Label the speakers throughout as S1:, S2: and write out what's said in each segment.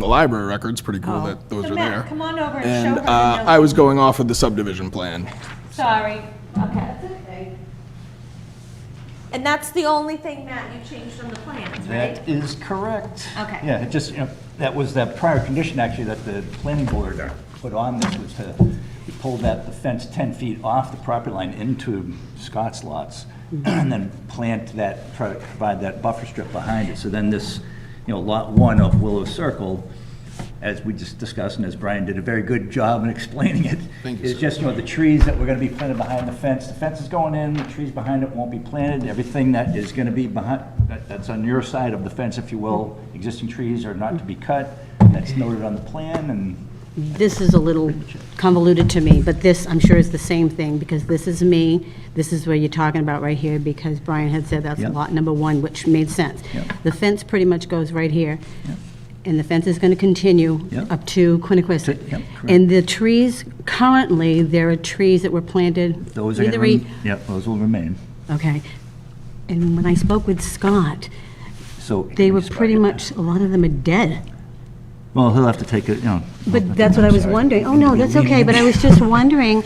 S1: The library record's pretty cool that those
S2: So
S1: are
S2: Matt,
S1: there.
S2: come on over and show
S1: And
S2: her the
S1: uh, I was going off of the subdivision plan.
S2: Sorry. Okay. And that's the only thing, Matt, you changed from the plans, right?
S3: That is correct.
S2: Okay.
S3: Yeah, it just, you know, that was that prior condition, actually, that the planning board put on this, was to, we pulled that, the fence 10 feet off the property line into Scott's lots, and then plant that, pro- provide that buffer strip behind it. So then this, you know, lot one of Willow Circle, as we just discussed, and as Brian did a very good job in explaining it,
S1: Thank you,
S3: is
S1: sir.
S3: just, you know, the trees that were gonna be planted behind the fence, the fence is going in, the trees behind it won't be planted, everything that is gonna be behind, that, that's on your side of the fence, if you will, existing trees are not to be cut, that's noted on the plan, and
S4: This is a little convoluted to me, but this, I'm sure, is the same thing, because this is me, this is where you're talking about right here, because Brian had said that's
S3: Yeah.
S4: lot number one, which made sense.
S3: Yeah.
S4: The fence pretty much goes right here,
S3: Yeah.
S4: and the fence is going to continue
S3: Yeah.
S4: up
S3: To-
S4: to Quiniquisette.
S3: yeah, correct.
S4: And the trees, currently, there are trees that were planted.
S3: those are gonna,
S4: either
S3: rem-
S4: e-
S3: yep, those will remain,
S4: Okay. And when I spoke with Scott,
S3: so.
S4: they were pretty much, a lot of them are dead.
S3: Well, he'll have to take it, you know.
S4: But that's what I was wondering. Oh, no, that's okay, but I was just wondering,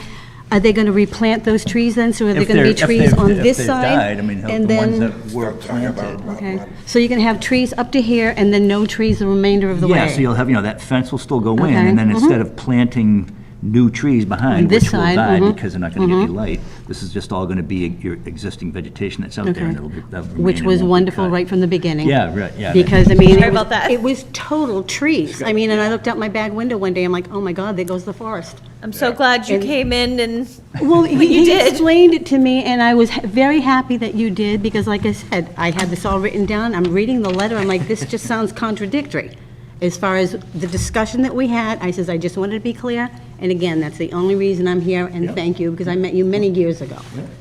S4: are they going to replant those trees then? So are there
S3: If
S4: going to
S3: they're-
S4: be
S3: if
S4: trees
S3: they've-
S4: on
S3: if
S4: this
S3: they've
S4: side?
S3: died, I mean, he'll-
S4: and
S3: the ones
S4: then-
S3: that were planted.
S4: Okay, so you're going to have trees up to here and then no trees the remainder of the way?
S3: Yeah, so you'll have, you know, that fence will still go in,
S4: Okay,
S3: and then
S4: mhm.
S3: instead of planting new trees behind,
S4: this
S3: which will
S4: side,
S3: die
S4: mhm,
S3: because they're not gonna get any light, this is just all gonna be your existing vegetation that's out there,
S4: Okay.
S3: and it'll be, that'll remain.
S4: Which
S3: and
S4: was
S3: won't be
S4: wonderful
S3: cut.
S4: right from the beginning.
S3: Yeah, right, yeah. that-
S4: Because, I mean,
S2: Sorry
S4: it was-
S2: about that.
S4: it was total trees. I mean, and I looked out my back window one day, I'm like, oh my God, there goes the forest.
S2: I'm so glad you came in and,
S4: Well, he he
S2: did.
S4: explained it to me, and I was ha- very happy that you did, because like I said, I had this all written down, I'm reading the letter, I'm like, this just sounds contradictory. As far as the discussion that we had, I says, I just wanted to be clear, and again, that's the only reason I'm here, and thank you, because I met you many years ago.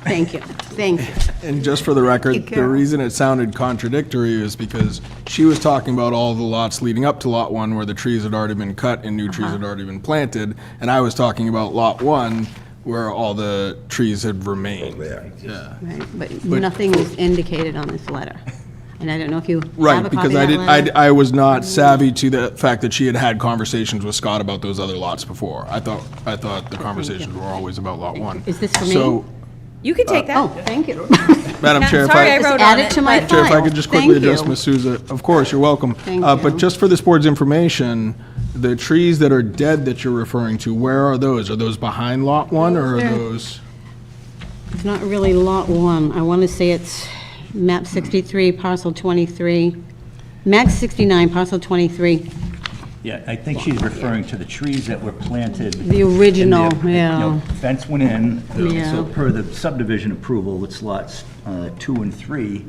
S4: Thank you, thank you.
S1: And just for the record, the reason it sounded contradictory is because she was talking about all the lots leading up to Lot 1 where the trees had already been cut and new trees had already been planted, and I was talking about Lot 1 where all the trees had remained. Yeah.
S4: Right, But nothing was indicated on this letter, and I don't know if you have
S1: Right,
S4: a copy of
S1: because I
S4: that
S1: did,
S4: letter.
S1: I, I was not savvy to the fact that she had had conversations with Scott about those other lots before. I thought, I thought the conversations were always about Lot 1.
S4: Is this for me?
S1: So,
S2: you can
S1: Uh,
S2: take
S4: Oh,
S2: that.
S4: thank you.
S1: Madam
S2: Yeah,
S1: Chair, if
S2: sorry,
S1: I,
S2: I wrote on
S4: Add
S2: it,
S4: it to my
S2: but-
S1: Chair,
S4: file.
S1: if I could just quickly
S4: Thank
S1: address
S4: you.
S1: Ms. Souza. Of course, you're welcome.
S4: Thank
S1: Uh, But
S4: you.
S1: just for this board's information, the trees that are dead that you're referring to, where are those? Are those behind Lot 1, or are
S4: Sure.
S1: those?
S4: It's not really Lot 1. I want to say it's map 63, parcel 23, map 69, parcel 23.
S3: Yeah, I think she's referring to the trees that were planted.
S4: The original,
S3: in the- you know,
S4: yeah.
S3: Fence went in, so
S4: Yeah.
S3: per the subdivision approval, it's lots uh, two and three,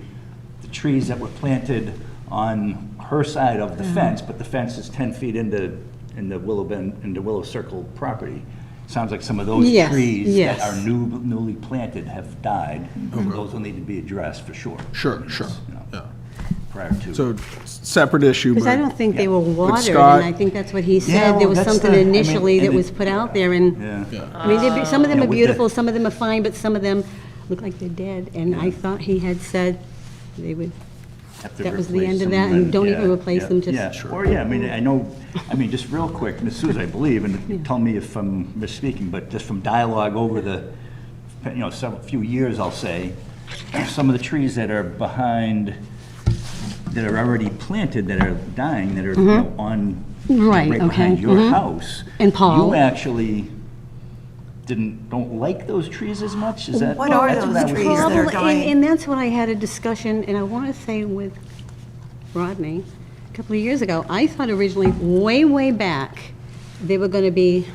S3: the trees that were planted on her side of the fence, but the fence is 10 feet into, into Willow Bend, into Willow Circle property. Sounds like some of those
S4: Yes,
S3: trees that
S4: yes.
S3: are new- newly planted have died. Those will need to be addressed for sure.
S1: Mm-hmm. Sure, sure,
S3: You know,
S1: yeah.
S3: Prior to.
S1: So, s- separate issue, but.
S4: Because I don't think they were watered, and
S1: Scott-
S4: I think that's what he said.
S3: well,
S4: There was
S3: that's
S4: something
S3: the- I mean,
S4: initially that
S3: and it-
S4: was put out there, and,
S3: Yeah.
S4: I mean, they'd be- some of them
S3: Yeah,
S4: are
S3: with the-
S4: beautiful, some of them are fine, but some of them look like they're dead. And I thought he had said they would,
S3: have to
S4: That was the
S3: replace
S4: end of
S3: them
S4: that, and don't even
S3: yeah,
S4: replace
S3: yeah,
S4: them, just-
S3: Yeah, sure, yeah, I mean, I know, I mean, just real quick, Ms. Souza, I believe, and tell me if I'm misspeaking, but just from dialogue over the, you know, some, few years, I'll say, some of the trees that are behind, that are already planted, that are dying, that are, you know, on,
S4: Mm-hmm. Right, okay,
S3: behind your
S4: mhm.
S3: house.
S4: And Paul.
S3: You actually didn't, don't like those trees as much, is that?
S5: What are
S3: that's
S5: those
S3: I was-
S5: trees that
S4: Probably,
S5: are
S4: and-
S5: dying.
S4: And that's what I had a discussion, and I want to say with Rodney, a couple of years ago, I thought originally, way, way back, they were going to be,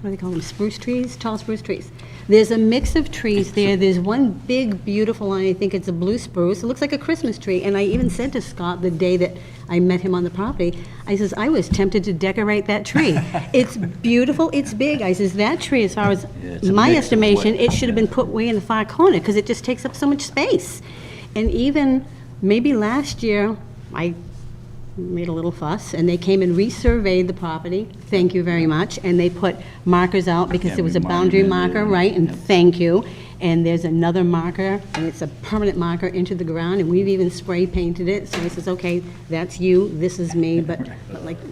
S4: what do they call them, spruce trees, tall spruce trees. There's a mix of trees there, there's one big beautiful, one. I think it's a blue spruce, it looks like a Christmas tree, and I even said to Scott the day that I met him on the property, I says, I was tempted to decorate that tree. It's beautiful, it's big, I says, that tree, as far as
S3: Yeah, it's a
S4: my
S3: mix of what-
S4: estimation, it should have been put way in the far corner, because it just takes up so much space. And even, maybe last year, I made a little fuss, and they came and resurveyed the property, thank you very much, and they put markers out, because
S3: Yeah,
S4: there was
S3: we
S4: a boundary
S3: monumented it,
S4: marker, right, and thank you. and there's another marker, and it's a permanent marker into the ground, and we've even spray painted it, so he says, okay, that's you, this is me, but but like,